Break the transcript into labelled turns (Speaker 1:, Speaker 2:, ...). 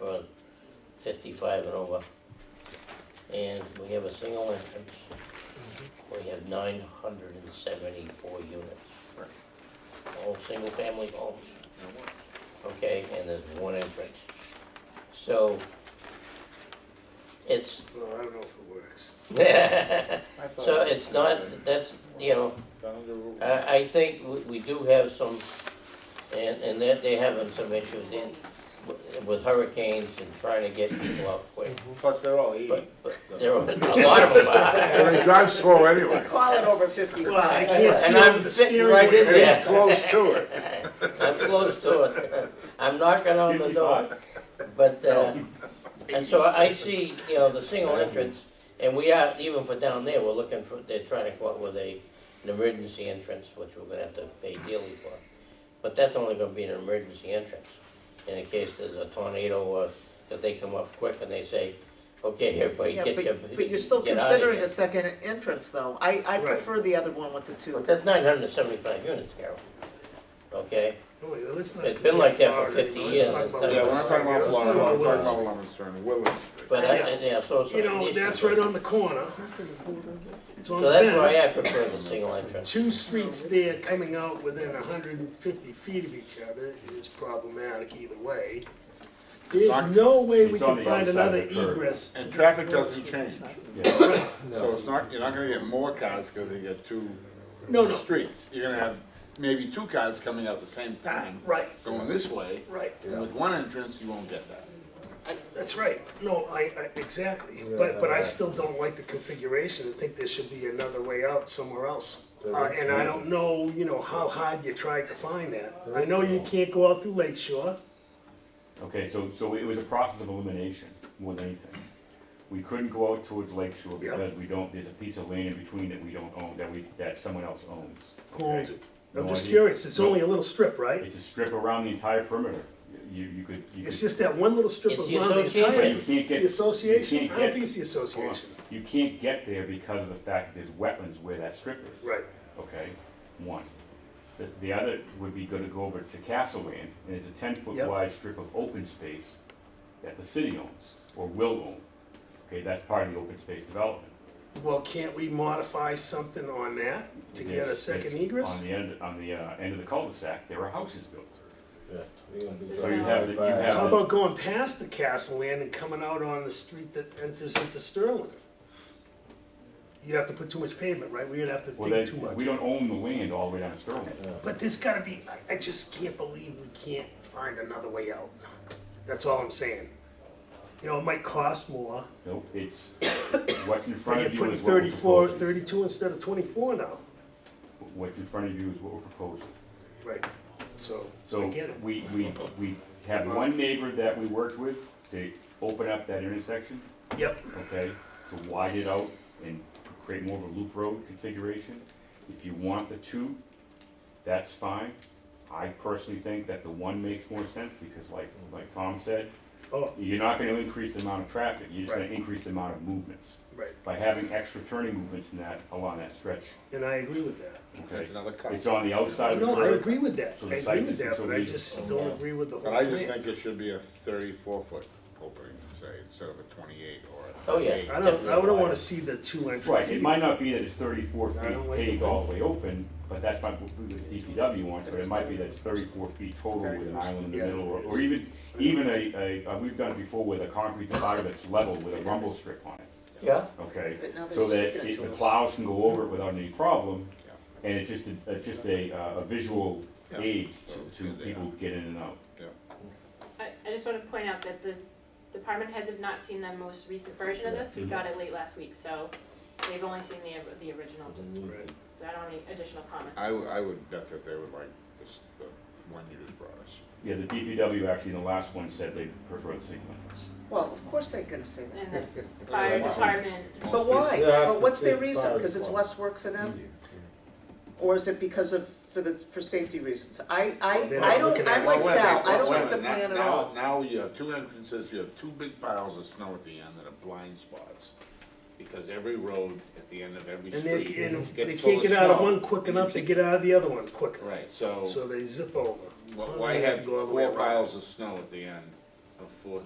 Speaker 1: on fifty-five and over. And we have a single entrance. We have nine hundred and seventy-four units.
Speaker 2: Right.
Speaker 1: All single-family homes,
Speaker 2: No worries.
Speaker 1: okay, and there's one entrance. So, it's,
Speaker 3: Well, I don't know if it works.
Speaker 1: so it's not, that's, you know, I, I think we, we do have some, and, and that they're having some issues in, with- with hurricanes and trying to get people out quick.
Speaker 4: Plus, they're all eating.
Speaker 1: But, but there are, a lot of them
Speaker 3: And
Speaker 1: are.
Speaker 3: they drive slow anyway.
Speaker 5: Call it over fifty-five.
Speaker 3: can't see
Speaker 1: And I'm
Speaker 3: over the
Speaker 1: sitting
Speaker 3: steering
Speaker 1: right in
Speaker 3: wheel. It's
Speaker 1: there.
Speaker 3: close to it.
Speaker 1: I'm close to it. I'm knocking on the door. But, uh, and so I see, you know, the single entrance, and we are, even for down there, we're looking for, they're trying to come up with a, an emergency entrance, which we're gonna have to pay dearly for. But that's only gonna be an emergency entrance, in case there's a tornado or if they come up quick and they say, okay, everybody
Speaker 5: Yeah,
Speaker 1: get your,
Speaker 5: but, but you're still
Speaker 1: get outta
Speaker 5: considering
Speaker 1: here."
Speaker 5: a second entrance though. I, I
Speaker 3: Right.
Speaker 5: prefer the other one with the two.
Speaker 1: But that's nine hundred and seventy-five units, Carol. Okay?
Speaker 3: No, wait, let's not
Speaker 1: It's been like that for 50
Speaker 3: Let's
Speaker 1: years,
Speaker 3: talk
Speaker 1: I'm
Speaker 3: about-
Speaker 1: telling
Speaker 4: Yeah, we're not talking about
Speaker 3: Let's talk
Speaker 4: Florida, we're
Speaker 3: about
Speaker 4: talking about
Speaker 3: Willis.
Speaker 4: Lemonster and Willis.
Speaker 1: But I,
Speaker 3: Yeah.
Speaker 1: yeah, so, so.
Speaker 3: You know,
Speaker 1: it's-
Speaker 3: that's right on the corner. It's on
Speaker 1: So that's
Speaker 3: Bend.
Speaker 1: why I prefer the single entrance.
Speaker 3: Two streets there coming out within hundred and fifty feet of each other is problematic either way. There's no way we
Speaker 6: It's on
Speaker 3: can
Speaker 6: the other
Speaker 3: find
Speaker 6: side of
Speaker 3: another
Speaker 6: the curve.
Speaker 3: egress.
Speaker 2: And traffic doesn't change,
Speaker 3: Right.
Speaker 2: so it's not, you're not gonna get more cars because you get two
Speaker 3: No, no.
Speaker 2: streets. You're gonna have maybe two cars coming out at the same time,
Speaker 3: Right,
Speaker 2: going this way.
Speaker 3: right.
Speaker 2: And With one entrance, you won't get that.
Speaker 3: That's right. No, I, I, exactly. But, but I still don't like the configuration. I think there should be another way out somewhere else. Uh, and I don't know, you know, how hard you tried to find that. I know you can't go out through Lake Shore.
Speaker 6: Okay, so, so it was a process of elimination more than anything. We couldn't go out towards Lake Shore
Speaker 3: Yeah.
Speaker 6: because we don't, there's a piece of land in between that we don't own, that we, that someone else owns.
Speaker 3: Who owns it? I'm
Speaker 6: No
Speaker 3: just
Speaker 6: idea.
Speaker 3: curious. It's
Speaker 6: No.
Speaker 3: only a little strip, right?
Speaker 6: It's a strip around the entire perimeter. You, you could, you could.
Speaker 3: It's just that one little strip
Speaker 1: It's
Speaker 3: of
Speaker 1: the
Speaker 3: ground. the entire-
Speaker 6: But you
Speaker 1: association.
Speaker 6: can't
Speaker 3: It's
Speaker 6: get.
Speaker 3: the association? I
Speaker 6: you can't
Speaker 3: don't
Speaker 6: get-
Speaker 3: think it's the
Speaker 6: hold on.
Speaker 3: association.
Speaker 6: You can't get there because of the fact that there's wetlands where that strip is.
Speaker 3: Right.
Speaker 6: Okay, one. The, the other would be gonna go over to Castle Land, and it's a ten-foot
Speaker 3: Yep.
Speaker 6: wide strip of open space that the city owns, or will own. Okay, that's part of the open space development.
Speaker 3: Well, can't we modify something on that to get a
Speaker 6: There's-
Speaker 3: second
Speaker 6: there's-
Speaker 3: egress?
Speaker 6: On the end, on the, uh, end of the cul-de-sac, there are houses built. So
Speaker 7: So
Speaker 6: you have, the- you have.
Speaker 3: How
Speaker 6: this-
Speaker 3: about going past the Castle Inn and coming out on the street that enters into Sterling? You'd have to put too much pavement, right? We'd have to
Speaker 6: Well,
Speaker 3: dig too
Speaker 6: then,
Speaker 3: much.
Speaker 6: we don't own the land all the way down to Sterling.
Speaker 3: But there's gotta be, I, I just can't believe we can't find another way out. That's all I'm saying. You know, it might cost more,
Speaker 6: Nope, it's, what's in front
Speaker 3: but you're
Speaker 6: of you
Speaker 3: putting
Speaker 6: is what we're
Speaker 3: thirty-four,
Speaker 6: proposing.
Speaker 3: thirty-two instead of twenty-four now.
Speaker 6: What's in front of you is what we're proposing.
Speaker 3: Right, so, I
Speaker 6: So
Speaker 3: get it.
Speaker 6: we, we, we have one neighbor that we worked with to open up that intersection,
Speaker 3: Yep,
Speaker 6: okay? To widen it out and create more of a loop road configuration. If you want the two, that's fine. I personally think that the one makes more sense because like, like Tom said,
Speaker 3: oh,
Speaker 6: you're not gonna increase the amount of traffic, you're just gonna
Speaker 3: Right.
Speaker 6: increase the amount of movements.
Speaker 3: right,
Speaker 6: By having extra turning movements in that, along that stretch,
Speaker 3: and I agree with that.
Speaker 6: okay?
Speaker 2: It's another car.
Speaker 6: It's on the outside of the
Speaker 3: No, I
Speaker 6: curb.
Speaker 3: agree with that,
Speaker 6: So the
Speaker 3: I
Speaker 6: site
Speaker 3: agree with
Speaker 6: distance
Speaker 3: that,
Speaker 6: will
Speaker 3: but I
Speaker 6: be-
Speaker 3: just don't agree with the whole
Speaker 2: But
Speaker 3: plan.
Speaker 2: I just think it should be a thirty-four foot opening, say, instead of a twenty-eight or a
Speaker 1: Oh, yeah.
Speaker 2: thirty-eight.
Speaker 3: I don't, I wouldn't wanna see the two entrances.
Speaker 6: Right, it might not be that it's thirty-four
Speaker 3: I don't
Speaker 6: feet
Speaker 3: like
Speaker 6: paved
Speaker 3: the-
Speaker 6: all the way open, but that's my, what the DPW wants, but it might be that it's thirty-four feet total with an island in the
Speaker 3: Yeah.
Speaker 6: middle, or, or even, even a, a, uh, we've done it before with a concrete divider that's level with a rumble strip on it,
Speaker 1: Yeah,
Speaker 6: okay?
Speaker 5: But now they're
Speaker 6: So that
Speaker 5: sticking it
Speaker 6: it-
Speaker 5: to
Speaker 6: the
Speaker 5: us.
Speaker 6: plows can go over it without any problem, and it's just a, it's just a, uh, a visual
Speaker 2: Yeah.
Speaker 6: aid
Speaker 2: So it's
Speaker 6: to, to
Speaker 2: good there.
Speaker 6: people who get in and out.
Speaker 8: I, I just want to point out that the department heads have not seen the most recent version of this. We got it late last week, so they've only seen the, the original, just,
Speaker 3: Right.
Speaker 8: I don't have any additional comments.
Speaker 2: I, would- I would bet that they would like this, the one you just brought us.
Speaker 6: Yeah, the DPW actually, in the last one, said they prefer the single entrance.
Speaker 5: Well, of course they're gonna say that.
Speaker 8: And the fire department,
Speaker 5: But why?
Speaker 7: Yeah, I have
Speaker 5: But
Speaker 7: to
Speaker 5: what's their
Speaker 7: say
Speaker 5: reason?
Speaker 7: five
Speaker 5: Cause it's
Speaker 7: o'clock.
Speaker 5: less work for them? Or is it because of, for this, for safety reasons? I, I,
Speaker 3: They're not
Speaker 5: I don't,
Speaker 3: looking at
Speaker 5: I'm
Speaker 3: it.
Speaker 5: like
Speaker 2: Well, wait a
Speaker 5: Sal,
Speaker 2: minute,
Speaker 5: I don't
Speaker 2: wait a
Speaker 5: like the
Speaker 2: minute.
Speaker 5: plan at
Speaker 2: Now-
Speaker 5: all.
Speaker 2: Now you have two entrances, you have two big piles of snow at the end that are blind spots. Because every road at the end of every
Speaker 3: And they,
Speaker 2: street
Speaker 3: and
Speaker 2: gets
Speaker 3: if
Speaker 2: full of
Speaker 3: they can't get out of
Speaker 2: snow.
Speaker 3: one quick enough, they get out of the other one quicker.
Speaker 2: Right, so
Speaker 3: So they zip over.
Speaker 2: wh-
Speaker 3: Well,
Speaker 2: why
Speaker 3: they
Speaker 2: have
Speaker 3: go all the way
Speaker 2: four
Speaker 3: around.
Speaker 2: piles of snow at the end of four,